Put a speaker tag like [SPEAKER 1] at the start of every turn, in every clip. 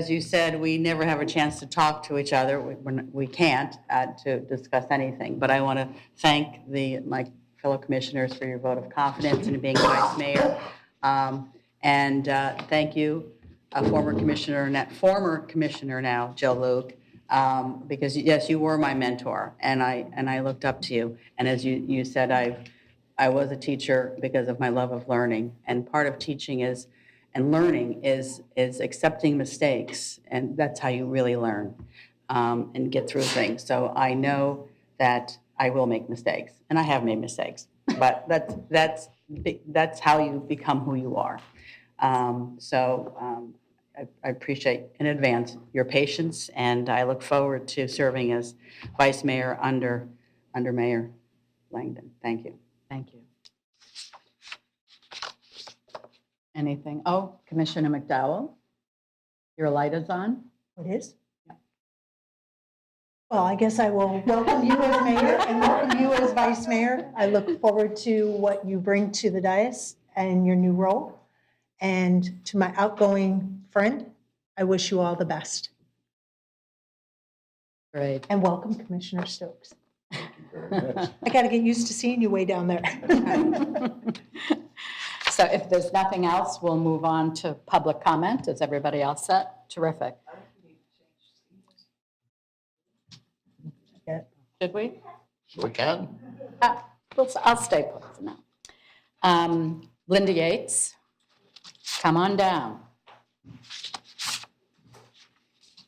[SPEAKER 1] As you said, we never have a chance to talk to each other. We- we're not- We can't uh, to discuss anything. But I want to thank the, my fellow commissioners for your vote of confidence in being vice mayor. Um, And uh, thank you, uh, former commissioner, Net- former commissioner now, Joe Luke, um, because yes, you were my mentor and I, and I looked up to you. And as you, you said, I've I was a teacher because of my love of learning. And part of teaching is, and learning is, is accepting mistakes. And that's how you really learn um, and get through things. So I know that I will make mistakes, and I have made mistakes. But that's that's bi- that's how you become who you are. Um, so um, I, I appreciate in advance your patience, and I look forward to serving as vice mayor under under Mayor Langdon. Thank you. Thank you. Anything? Oh, Commissioner McDowell, your light is on.
[SPEAKER 2] It is? Well, I guess I will welcome you as mayor and welcome you as vice mayor. I look forward to what you bring to the dais and your new role. And to my outgoing friend, I wish you all the best.
[SPEAKER 1] Great.
[SPEAKER 2] And welcome Commissioner Stokes.
[SPEAKER 3] Very much.
[SPEAKER 2] I got to get used to seeing you way down there.
[SPEAKER 1] So if there's nothing else, we'll move on to public comment. Is everybody all set? Terrific.
[SPEAKER 2] Yeah.
[SPEAKER 1] Should we?
[SPEAKER 3] We can.
[SPEAKER 1] Uh, we'll s- I'll stay put for now. Um, Linda Yates, come on down.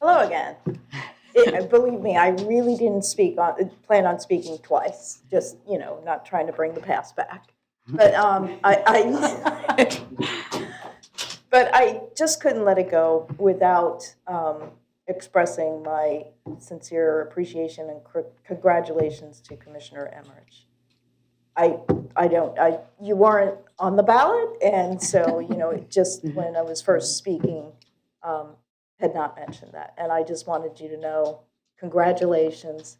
[SPEAKER 4] Hello again. It, uh, believe me, I really didn't speak on, uh, plan on speaking twice. Just you know, not trying to bring the past back. But um, I, I but I just couldn't let it go without um, expressing my sincere appreciation and cr- congratulations to Commissioner Emmerich. I I don't I you weren't on the ballot, and so you know, it just when I was first speaking. Um, had not mentioned that. And I just wanted you to know, congratulations.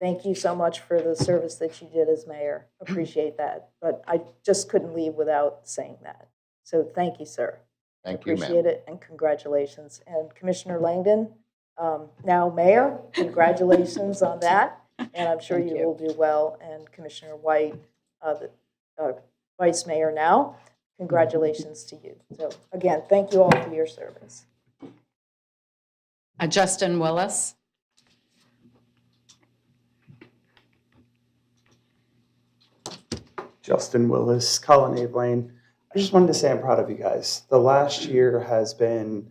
[SPEAKER 4] Thank you so much for the service that you did as mayor. Appreciate that. But I just couldn't leave without saying that. So thank you, sir.
[SPEAKER 3] Thank you, ma'am.
[SPEAKER 4] Appreciate it and congratulations. And Commissioner Langdon, um, now mayor, congratulations on that. And I'm sure
[SPEAKER 1] Thank
[SPEAKER 4] you
[SPEAKER 1] you.
[SPEAKER 4] will do well. And Commissioner White, uh, the uh, vice mayor now,
[SPEAKER 3] Mm-hmm.
[SPEAKER 4] congratulations to you. So again, thank you all for your service.
[SPEAKER 1] Uh, Justin Willis.
[SPEAKER 5] Justin Willis, Colin Ablane. I just wanted to say I'm proud of you guys. The last year has been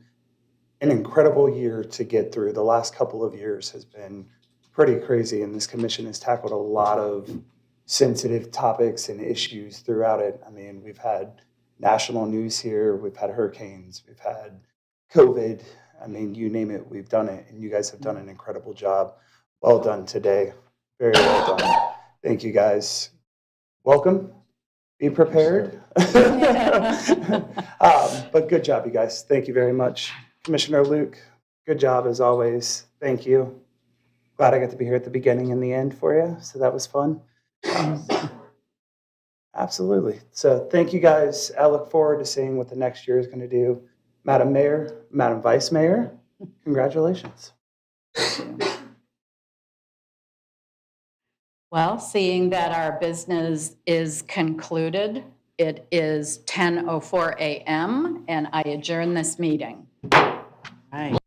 [SPEAKER 5] an incredible year to get through. The last couple of years has been pretty crazy, and this commission has tackled a lot of sensitive topics and issues throughout it. I mean, we've had national news here, we've had hurricanes, we've had COVID. I mean, you name it, we've done it, and you guys have done an incredible job. Well done today. Very well done. Thank you guys welcome. Be prepared. um, but good job, you guys. Thank you very much. Commissioner Luke, good job as always. Thank you. Glad I got to be here at the beginning and the end for you. So that was fun. Um, absolutely. So thank you guys. I look forward to seeing what the next year is going to do. Madam Mayor, Madam Vice Mayor, congratulations.
[SPEAKER 1] Well, seeing that our business is concluded, it is 10:04 a.m. and I adjourn this meeting.
[SPEAKER 6] Right.